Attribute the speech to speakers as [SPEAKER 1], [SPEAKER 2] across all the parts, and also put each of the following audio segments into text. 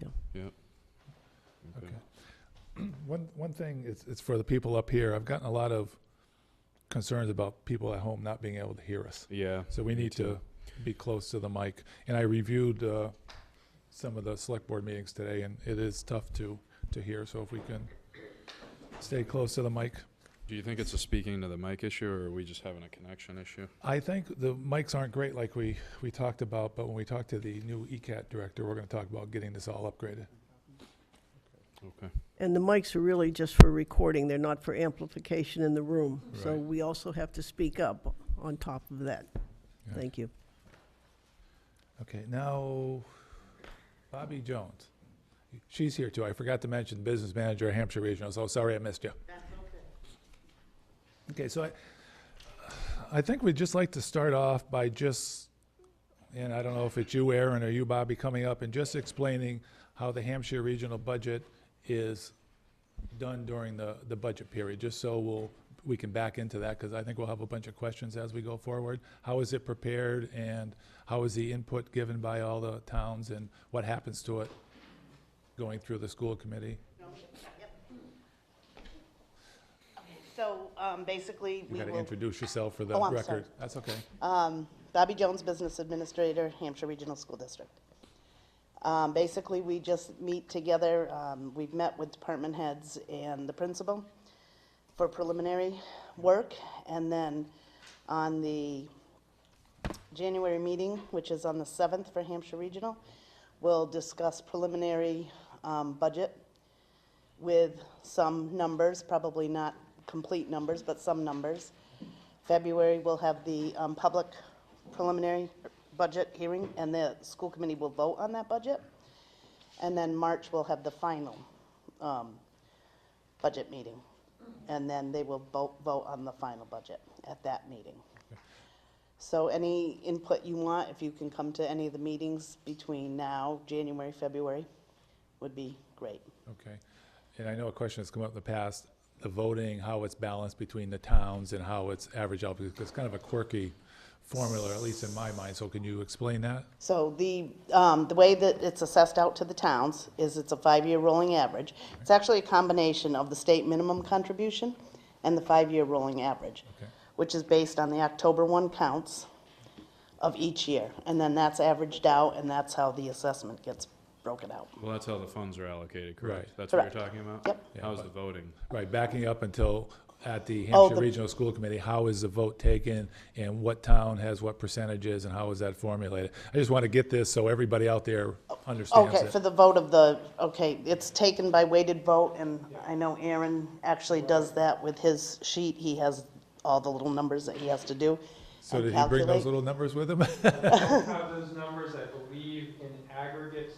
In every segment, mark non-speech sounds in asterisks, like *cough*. [SPEAKER 1] Yeah.
[SPEAKER 2] Okay. One, one thing, it's, it's for the people up here. I've gotten a lot of concerns about people at home not being able to hear us.
[SPEAKER 1] Yeah.
[SPEAKER 2] So we need to be close to the mic. And I reviewed uh, some of the select board meetings today, and it is tough to, to hear. So if we can stay close to the mic.
[SPEAKER 1] Do you think it's a speaking to the mic issue, or are we just having a connection issue?
[SPEAKER 2] I think the mics aren't great like we, we talked about, but when we talk to the new E ECAT director, we're going to talk about getting this all upgraded.
[SPEAKER 1] Okay.
[SPEAKER 3] And the mics are really just for recording, they're not for amplification in the room. So
[SPEAKER 2] Right.
[SPEAKER 3] we also have to speak up on top of that.
[SPEAKER 2] Yeah.
[SPEAKER 3] Thank you.
[SPEAKER 2] Okay, now Bobby Jones. She's here too. I forgot to mention business manager at Hampshire Regional, so sorry I missed you. Okay, so I, I think we'd just like to start off by just, and I don't know if it's you, Aaron, or you, Bobby, coming up and just explaining how the Hampshire Regional budget is done during the, the budget period, just so we'll, we can back into that, because I think we'll have a bunch of questions as we go forward. How is it prepared, and how is the input given by all the towns, and what happens to it going through the school committee?
[SPEAKER 4] So um, basically,
[SPEAKER 2] You
[SPEAKER 4] we
[SPEAKER 2] gotta
[SPEAKER 4] will,
[SPEAKER 2] introduce yourself for the
[SPEAKER 4] Oh, I'm
[SPEAKER 2] record.
[SPEAKER 4] sorry.
[SPEAKER 2] That's okay.
[SPEAKER 4] um, Bobby Jones, Business Administrator, Hampshire Regional School District. Um, Basically, we just meet together, um, we've met with department heads and the principal for preliminary work, and then on the January meeting, which is on the 7th for Hampshire Regional, we'll discuss preliminary um, budget with some numbers, probably not complete numbers, but some numbers. February, we'll have the um, public preliminary budget hearing, and the school committee will vote on that budget. And then March, we'll have the final um, budget meeting, and then they will vote, vote on the final budget at that meeting. So any input you want, if you can come to any of the meetings between now, January, February, would be great.
[SPEAKER 2] Okay. And I know a question that's come up in the past, the voting, how it's balanced between the towns and how it's averaged out, because it's kind of a quirky formula, at least in my mind. So can you explain that?
[SPEAKER 4] So the, um, the way that it's assessed out to the towns is it's a five-year rolling average. It's actually a combination of the state minimum contribution and the five-year rolling average,
[SPEAKER 2] Okay.
[SPEAKER 4] which is based on the October one counts of each year. And then that's averaged out, and that's how the assessment gets broken out.
[SPEAKER 1] Well, that's how the funds are allocated, correct?
[SPEAKER 2] Right.
[SPEAKER 1] That's what you're
[SPEAKER 4] Correct.
[SPEAKER 1] talking about?
[SPEAKER 4] Yep.
[SPEAKER 2] Yeah,
[SPEAKER 1] How's
[SPEAKER 2] but-
[SPEAKER 1] the voting?
[SPEAKER 2] Right, backing up until at the
[SPEAKER 4] Oh,
[SPEAKER 2] Hampshire
[SPEAKER 4] the-
[SPEAKER 2] Regional School Committee, how is the vote taken and what town has what percentages and how is that formulated? I just want to get this so everybody out there understands
[SPEAKER 4] Oh, Okay,
[SPEAKER 2] it.
[SPEAKER 4] for the vote of the, okay, it's taken by weighted vote, and I know Aaron actually does that with his sheet. He has all the little numbers that he has to do.
[SPEAKER 2] So
[SPEAKER 4] and
[SPEAKER 2] did he bring those
[SPEAKER 4] calculate.
[SPEAKER 2] little numbers with him?
[SPEAKER 5] have those numbers, I believe, in aggregate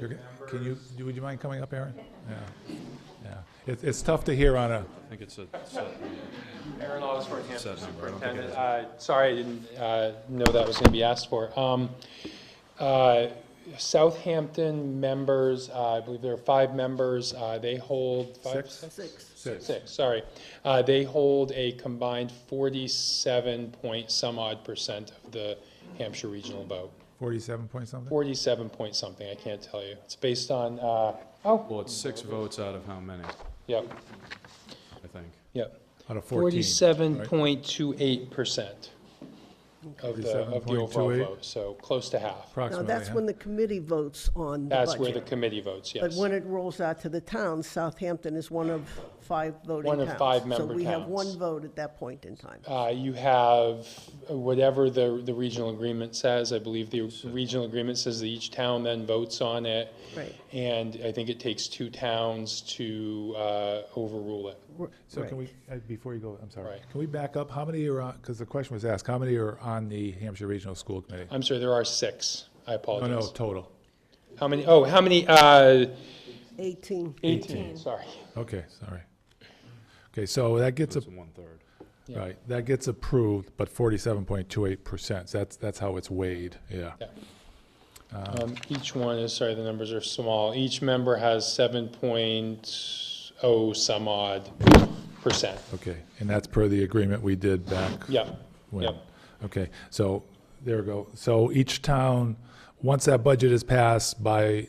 [SPEAKER 2] *laughs* You're
[SPEAKER 5] members.
[SPEAKER 2] gonna- Can you, do- would you mind coming up, Aaron? Yeah, yeah. It's, it's tough to hear on a,
[SPEAKER 1] I think it's a set,
[SPEAKER 5] Aaron Osborne, Hampton
[SPEAKER 1] Set number, I don't think it
[SPEAKER 5] Superintendent. Uh, Sorry, I didn't uh, know that was going to be asked for. Um, uh, Southampton members, uh, I believe there are five members, uh, they hold. five-
[SPEAKER 2] Six.
[SPEAKER 3] Six.
[SPEAKER 2] six.
[SPEAKER 5] Six, sorry. Uh, They hold a combined 47 point some odd percent of the Hampshire regional vote.
[SPEAKER 2] Forty-seven point something?
[SPEAKER 5] 47 point something, I can't tell you. It's based on, uh, oh,
[SPEAKER 1] well, it's six votes out of how many,
[SPEAKER 5] yep,
[SPEAKER 1] I think.
[SPEAKER 5] yep.
[SPEAKER 2] Out of fourteen.
[SPEAKER 5] Forty-seven
[SPEAKER 2] right?
[SPEAKER 5] point two eight percent of the, of the overall
[SPEAKER 2] 47.28.
[SPEAKER 5] vote, so close to half.
[SPEAKER 3] Now,
[SPEAKER 2] Approximately,
[SPEAKER 3] that's
[SPEAKER 2] huh?
[SPEAKER 3] when the committee votes on the
[SPEAKER 5] That's where the
[SPEAKER 3] budget.
[SPEAKER 5] committee votes,
[SPEAKER 3] But
[SPEAKER 5] yes.
[SPEAKER 3] when it rolls out to the towns, Southampton is one of five voting towns.
[SPEAKER 5] One of five member
[SPEAKER 3] So we have
[SPEAKER 5] towns.
[SPEAKER 3] one vote at that point in time.
[SPEAKER 5] Uh, you have uh, whatever the, the regional agreement says, I believe the regional agreement says that each town then votes on it.
[SPEAKER 3] Right.
[SPEAKER 5] And I think it takes two towns to, uh, overrule it.
[SPEAKER 3] R-
[SPEAKER 2] So can
[SPEAKER 3] right.
[SPEAKER 2] we, uh, before you go, I'm sorry,
[SPEAKER 5] Right.
[SPEAKER 2] can we back up? How many are on, because the question was asked, how many are on the Hampshire Regional School Committee? Oh,
[SPEAKER 5] I'm sorry, there are six. I
[SPEAKER 2] No, no,
[SPEAKER 5] apologize.
[SPEAKER 2] total.
[SPEAKER 5] How many, oh, how many, uh,
[SPEAKER 3] 18.
[SPEAKER 5] eighteen, sorry.
[SPEAKER 2] Okay, sorry. Okay, so that gets,
[SPEAKER 1] It's
[SPEAKER 2] a-
[SPEAKER 1] one-third.
[SPEAKER 5] Yeah.
[SPEAKER 2] right, that gets approved, but forty-seven point two eight percent, that's, that's how it's weighed, yeah.
[SPEAKER 5] Yeah. Um, Each one is, sorry, the numbers are small. Each member has seven point oh some odd percent.
[SPEAKER 2] Okay, and that's per the agreement we did back
[SPEAKER 5] Yep,
[SPEAKER 2] when-
[SPEAKER 5] yep.
[SPEAKER 2] Okay, so, there we go. So each town, once that budget is passed by